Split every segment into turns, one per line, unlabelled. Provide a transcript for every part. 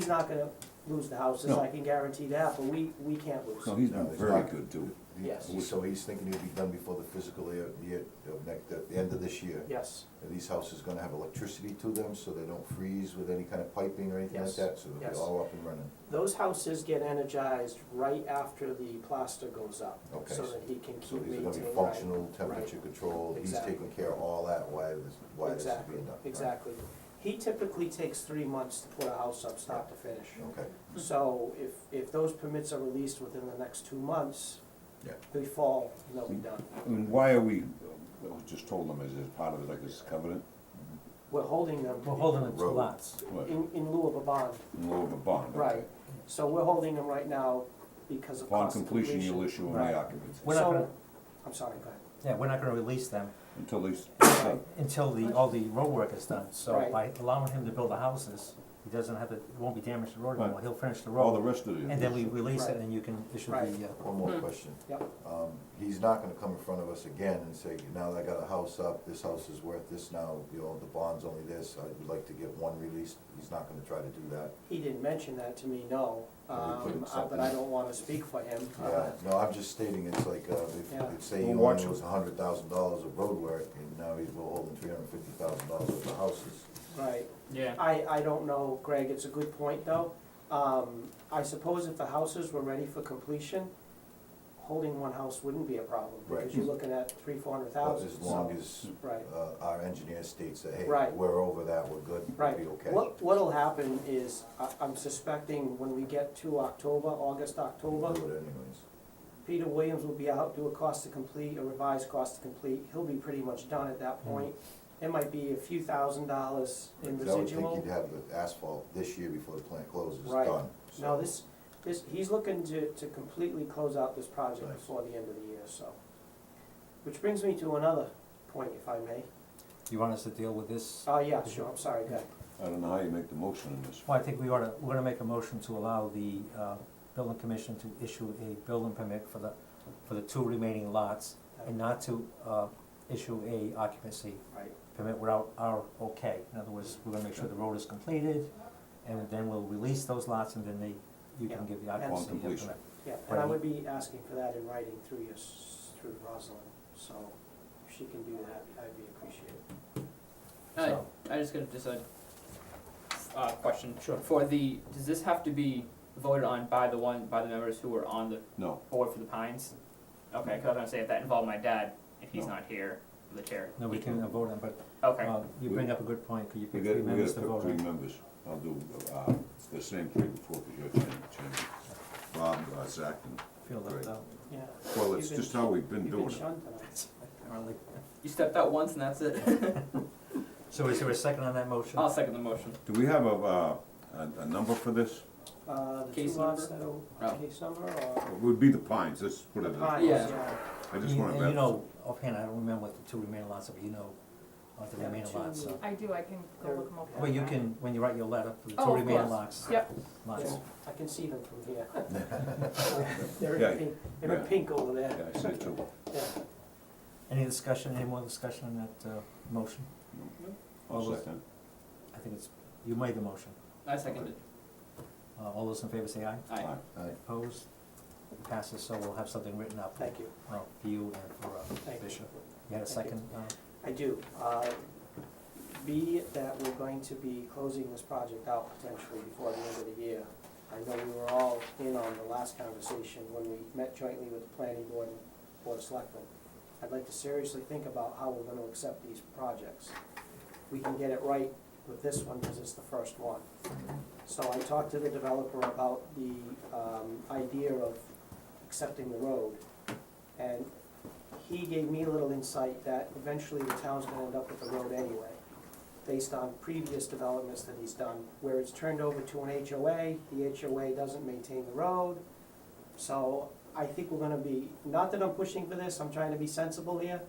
not gonna lose the houses,
No.
I can guarantee that, but we, we can't lose.
No, he's been
No, it's
very
not.
good too.
He-
Yes.
So he's thinking it'll be done before the fiscal year, year, of next, at the end of this year.
Yes,
And these houses gonna have electricity to them, so they don't freeze with any kind of piping or anything like
Yes.
that, so they'll
Yes.
be all up and running.
those houses get energized right after the plaster goes up,
Okay,
so
so-
that he can
So
keep
these are
maintaining.
gonna be functional, temperature controlled, he's
Exactly.
taking care of all that, why this, why this is
Exactly,
being done. right?
exactly. He typically takes three months to put a house up, start to finish.
Okay,
So if, if those permits are released within the next two months,
Yeah.
they fall, and they'll be done.
I mean, why are we, I was just told them as, as part of it, like this covenant,
We're holding them
We're holding them to
Road.
lots.
what, in
in, in lieu of a bond,
lieu of a bond? okay.
right. So we're holding them right now because of
Upon
cost of
completion, you'll
completion.
issue an
Right.
occupancy
We're not
So-
gonna,
I'm sorry, go ahead.
yeah, we're not gonna release them
until they, s-
until the, all the road work is done. So
Right.
by allowing him to build the houses, he doesn't have to, it won't be damaged to the road
Right.
anymore, he'll finish the
all the
road.
rest of it.
And then we release
Right.
it and you can issue the,
Right.
uh,
one more question.
Yep.
Um, he's not gonna come in front of us again and say, now that I got a house up, this house is worth this now, you know, the bond's only this, I would like to get one released, he's not gonna try to do that.
He didn't mention that to me, no,
Well, we put
um,
it
uh, but
something-
I don't wanna speak for him.
Yeah, no, I'm just stating, it's like, uh,
Yeah.
if, if say
We'll
you
watch
own was a hundred thousand dollars of road work, and now he's, we're holding three hundred and fifty thousand dollars of the houses.
Right.
Yeah.
I, I don't know, Greg, it's a good point, though. Um, I suppose if the houses were ready for completion, holding one house wouldn't be a problem, because
Right.
you're looking at three, four hundred
But
thousand.
as long as,
Right,
uh, our engineer states that, hey,
Right.
we're over that, we're good, we'll
right.
be okay.
What, what'll happen is, I, I'm suspecting when we get to October, August,
We'll
October,
do it anyways.
Peter Williams will be out, do a cost to complete, a revised cost to complete, he'll be pretty much done at
Hmm.
that point. It might be a few thousand dollars in
Because I would
residual.
think you'd have the asphalt this year before the plant closes,
Right.
done. so-
No, this, this, he's looking to, to completely close out this project
Nice.
before the end of the year, so. Which brings me to another point, if I may.
you want us to deal with this?
Oh,
Mm-hmm.
yeah, sure, I'm sorry, go ahead.
I don't know how you make the motion in this.
Well, I think we ought to, we're gonna make a motion to allow the, uh, building commission to issue a building permit for the, for the two remaining lots and not to, uh, issue a occupancy
Right,
permit without our okay. In other words, we're gonna make sure the road is completed, and then we'll release those lots, and then they, you
Yeah.
can give the
Upon
occupancy permit.
completion.
yeah, and I
Right.
would be asking for that in writing through your, s- through Rosalind, so if she can do that, I'd be appreciated.
I,
So-
I just got just a uh, question.
Sure.
For the does this have to be voted on by the one by the members who were on the
No,
board for the Pines? Okay, because I was gonna say if that involved my dad, if he's
No.
not here, the chair.
No, we
he
can uh, vote on, but,
Okay.
uh, you
We-
bring up a good point, could you
we
pick
got,
three
we
members
got
to
to pick
vote
three
on?
members. I'll do, uh, the same three before, because you're changing, changing. Bob, uh, Zach, and,
Feel
Great.
left out.
Yeah.
well,
You've
it's
been-
just how we've been
You've
doing
been
it.
shunned tonight.
Apparently.
you stepped out once and that's it.
So is there a second on that motion?
I'll second the motion.
Do we have a, uh, a, a number for this?
Uh, the two
Case
lots that
number?
are,
No.
case number or?
It would be the pines, let's put it,
Pines,
I
Yeah.
just wanna.
And you know, offhand, I don't remember what the two remaining lots are, but you know, uh, the
Yeah,
remaining
two-
lots, so.
I do, I can go look them up.
Well, you can, when you write your letter, for the
Oh,
two
of
remaining
course.
lots.
Yep.
Lots.
Yeah, I can see them from here. They're in
Yeah,
pink, they're in
yeah.
pink over
Yeah,
there,
I said two.
yeah.
Any discussion, any more discussion on that, uh, motion? All
I'll
those-
second.
I think it's, you made the motion.
I seconded.
Uh, all those in favor say aye.
Aye.
Aye.
Alright,
Opposed? Passes, so we'll have something written up.
Thank you,
uh, For you and for uh,
thank you.
Bishop. You had a
Thank you.
second? uh,
I do. Uh, Be that we're going to be closing this project out potentially before the end of the year. I know we were all in on the last conversation when we met jointly with the planning board and board of selectmen. I'd like to seriously think about how we're gonna accept these projects. We can get it right with this one because it's the first one. So I talked to the developer about the um, idea of accepting the road. And he gave me a little insight that eventually the town's gonna end up with the road anyway, based on previous developments that he's done, where it's turned over to an HOA, the HOA doesn't maintain the road. So I think we're gonna be, not that I'm pushing for this, I'm trying to be sensible here,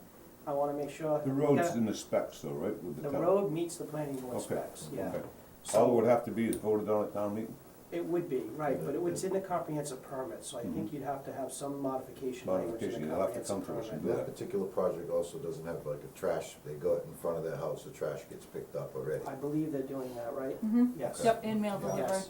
I wanna make sure.
The road's in the specs though, right, with the
The
town?
road meets the planning board
Okay,
specs, yeah.
okay.
So-
All it would have to be is voted on at town meeting,
It would be, right, but it would- it's in the comprehensive permit, so I think
Mhm.
you'd have to have some modification language in
Modification,
the
you'll have to
comprehensive
come to us
permit.
and
That particular project also doesn't have like a trash, they go in front of their house, the trash gets picked up already.
I believe they're doing that, right?
Mm-hmm.
Yes.
Yep, in mail
Yeah.
delivery.
Yes,